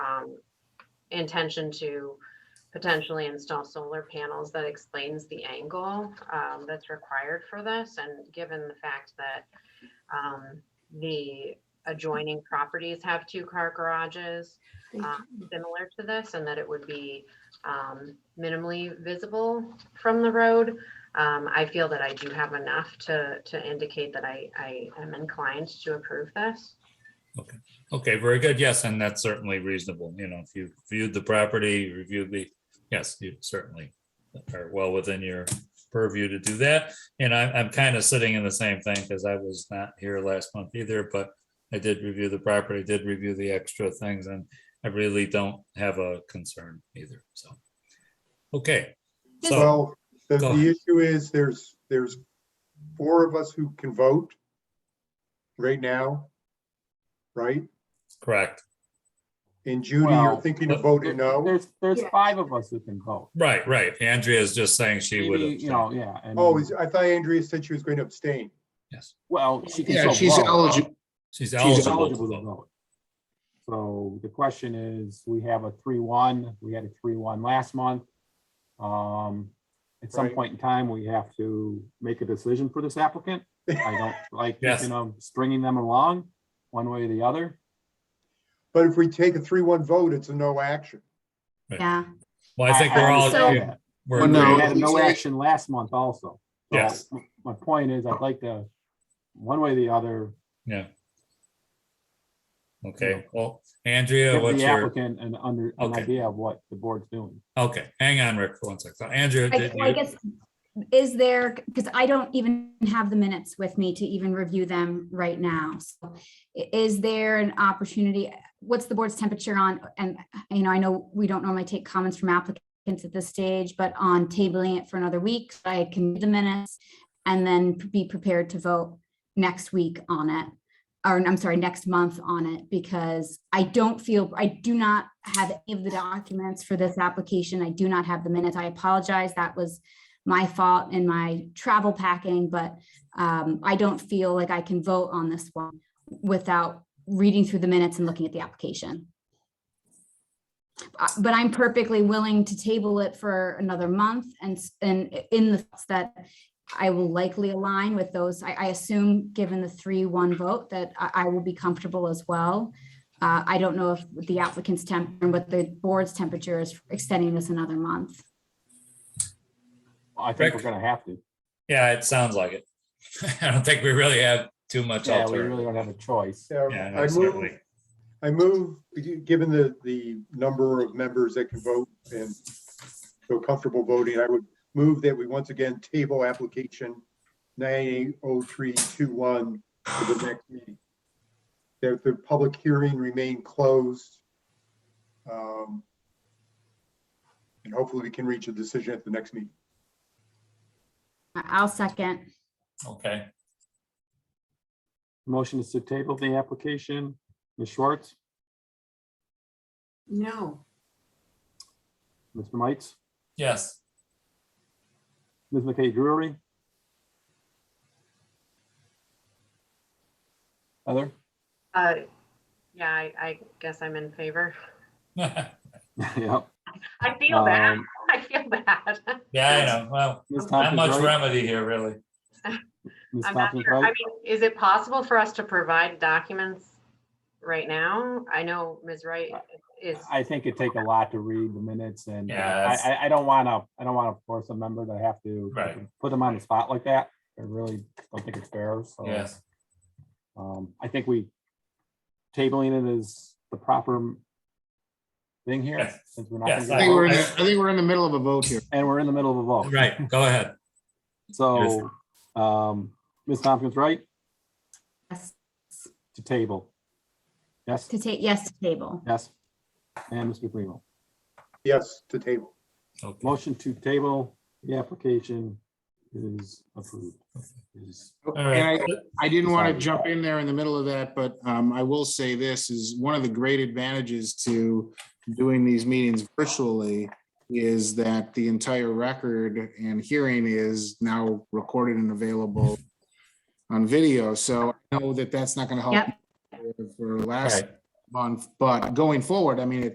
um, intention to potentially install solar panels that explains the angle um, that's required for this. And given the fact that um, the adjoining properties have two-car garages Thank um, similar to this, and that it would be um, minimally visible from the road, um, I feel that I do have enough to, to indicate that I, I am inclined to approve this. Okay, very good. Yes, and that's certainly reasonable. You know, if you viewed the property, reviewed the, yes, you certainly are well within your purview to do that. And I'm, I'm kind of sitting in the same thing because I was not here last month either, but I did review the property, did review the extra things, and I really don't have a concern either, so. Okay, so, Well, the, Go the ahead. issue is there's, there's four of us who can vote right now, right? correct, And Judy, you're Well, thinking of voting no? There's, there's Yes. five of us who can vote. right, right. Andrea is just saying she would Maybe, You have, know, yeah. and- Oh, is, I thought Andrea said she was going to abstain. yes, Well, she can Yeah, still she's vote. eligible. she's She's eligible. to eligible to vote. vote. So the question is, we have a three, one, we had a three, one last month. Um, at some Right. point in time, we have to make a decision for this applicant. I don't like, Yes. you know, stringing them along one way or the other. But if we take a three-one vote, it's a no action. Yeah, Well, I think we're So- all, Yeah. we're Well, We no, agreeing. had we no say- action last month also. So Yes. m- My point is, I'd like to, one way or the other, Yeah. Yeah. Okay, well, Andrea, give what's the your, applicant an under, an Okay. idea of what the board's doing. okay, hang on, Rick, for one second. So Andrea, I did I you, guess, is there, because I don't even have the minutes with me to even review them right now. So i- Is there an opportunity, what's the board's temperature on, and, you know, I know we don't normally take comments from applicants at this stage, but on tabling it for another week, so I can do the minutes and then be prepared to vote next week on it. Or I'm sorry, next month on it, because I don't feel, I do not have any of the documents for this application. I do not have the minutes. I apologize. That was my fault in my travel packing, but um, I don't feel like I can vote on this one without reading through the minutes and looking at the application. Uh, But I'm perfectly willing to table it for another month and, s- and in the thoughts that I will likely align with those. I, I assume, given the three one vote, that I, I will be comfortable as well. Uh, I don't know if the applicant's temp, and what the board's temperature is for extending this another month. I think we're Rick? gonna have to. yeah, it sounds like it. I don't think we really have too much Yeah, we alternative. really don't have a choice. So Yeah, I no, move, certainly. I move, given the, the number of members that can vote and feel comfortable voting, I would move that we once again table application nine oh three two one for the next meeting. That the public hearing remain closed. Um, And hopefully we can reach a decision at the next meeting. I- I'll second. Okay, Motion is to table the application. Ms. Schwartz, no, Mr. Mites, yes, Ms. McKay Drury. Heather? Uh, yeah, I, I guess I'm in favor. yeah, Yep. I feel bad. Um, I feel bad. I know, well, not Ms. Tompkins, much right? remedy here, really. Ms. I'm not Tompkins, sure. I right? mean, is it possible for us to provide documents right now? I know Ms. Wright is, I think it'd take a lot to read the minutes and uh, Yeah, I, I, I don't wanna, I don't wanna force a member to have to Right. put them on the spot like that. I really don't think it's fair, so. Yes, Um, I think we tabling it is the proper thing here. Yes. since we're not Yes, gonna I get think we're in, votes, the- I think we're in the middle of a vote here. And we're in the middle of a vote. right, go ahead. So, um, Ms. Tompkins, right, Yes, to table? Yes, To take, yes, to table. yes. And Mr. Primo, Yes, to table. Okay. motion to table, the application is approved. Is- All And right, I- I didn't want to jump in there in the middle of that, but um, I will say this is one of the great advantages to doing these meetings virtually is that the entire record and hearing is now recorded and available on video. So I know that that's not going to help for last Right. month, but going forward, I mean, it